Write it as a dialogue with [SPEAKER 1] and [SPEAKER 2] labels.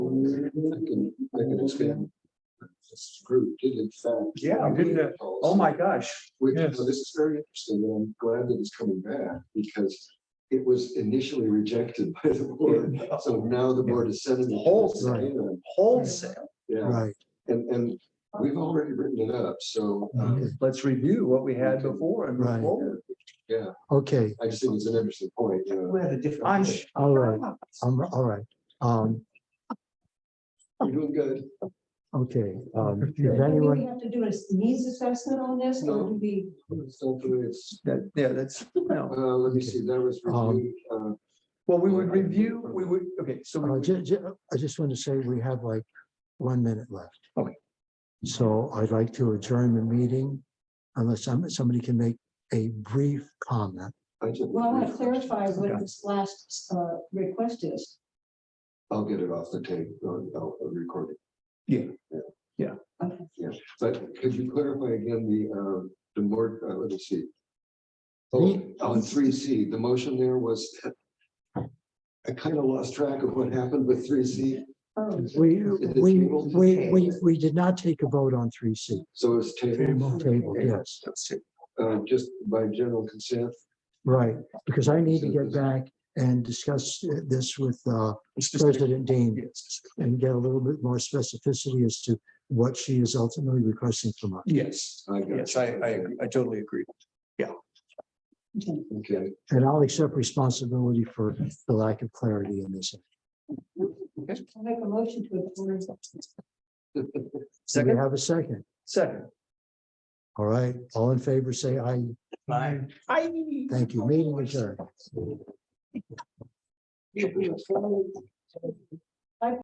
[SPEAKER 1] can, I can expand. This group did in fact.
[SPEAKER 2] Yeah, didn't it? Oh, my gosh.
[SPEAKER 1] Which,
[SPEAKER 2] Yes.
[SPEAKER 1] so this is very interesting, and I'm glad that it's coming back, because it was initially rejected by the board, so now the board is sending. it to us
[SPEAKER 2] Right.
[SPEAKER 1] again.
[SPEAKER 2] Wholesale.
[SPEAKER 1] Yeah,
[SPEAKER 3] Right,
[SPEAKER 1] and, and we've already written it up, so, um,
[SPEAKER 3] okay,
[SPEAKER 2] Let's review what we had before and move
[SPEAKER 3] Right.
[SPEAKER 2] forward.
[SPEAKER 1] yeah,
[SPEAKER 3] okay,
[SPEAKER 1] I just think it's an interesting point, you know.
[SPEAKER 2] I'm,
[SPEAKER 3] all right, um, all right, um,
[SPEAKER 1] You're doing good.
[SPEAKER 3] okay, um,
[SPEAKER 2] Yeah.
[SPEAKER 3] if
[SPEAKER 4] Do
[SPEAKER 3] anyone,
[SPEAKER 4] we have to do a needs assessment on this or do we?
[SPEAKER 1] So it's,
[SPEAKER 2] that, yeah, that's,
[SPEAKER 1] uh,
[SPEAKER 2] no.
[SPEAKER 1] let me see, that was
[SPEAKER 3] Um,
[SPEAKER 1] reviewed, uh,
[SPEAKER 2] Well, we would review, we would, okay, so we
[SPEAKER 3] uh,
[SPEAKER 2] would
[SPEAKER 3] ju- ju- I just want to say we have like one minute left.
[SPEAKER 2] Okay.
[SPEAKER 3] So I'd like to adjourn the meeting unless some, somebody can make a brief comment.
[SPEAKER 1] I just.
[SPEAKER 4] Well, I want to clarify
[SPEAKER 2] Okay.
[SPEAKER 4] what this last uh, request is.
[SPEAKER 1] I'll get it off the tape, or I'll record it.
[SPEAKER 2] Yeah. Yeah.
[SPEAKER 4] Okay.
[SPEAKER 1] Yeah, but could you clarify again the, uh, the more, uh, let me see.
[SPEAKER 3] Me?
[SPEAKER 1] Oh, on three C, the motion there was. I kind of lost track of what happened with three C,
[SPEAKER 4] Oh,
[SPEAKER 3] We, we, we, we, we did not take a vote on three C.
[SPEAKER 1] so it's table,
[SPEAKER 3] Table, yes,
[SPEAKER 1] uh, just by general consent.
[SPEAKER 3] right, because I need to get back and discuss uh, this with, uh, President Dean. and get a little bit more specificity as to what she is ultimately requesting from us.
[SPEAKER 2] Yes,
[SPEAKER 1] I got
[SPEAKER 2] yes, I, I, agree. I totally agree.
[SPEAKER 1] Okay,
[SPEAKER 3] And I'll accept responsibility for the lack of clarity in this.
[SPEAKER 4] I'll make a motion to approve.
[SPEAKER 3] Do we
[SPEAKER 2] Second,
[SPEAKER 3] have a second?
[SPEAKER 2] second.
[SPEAKER 3] All right, all in favor, say aye.
[SPEAKER 2] Fine. I.
[SPEAKER 3] Thank you. Meeting adjourned.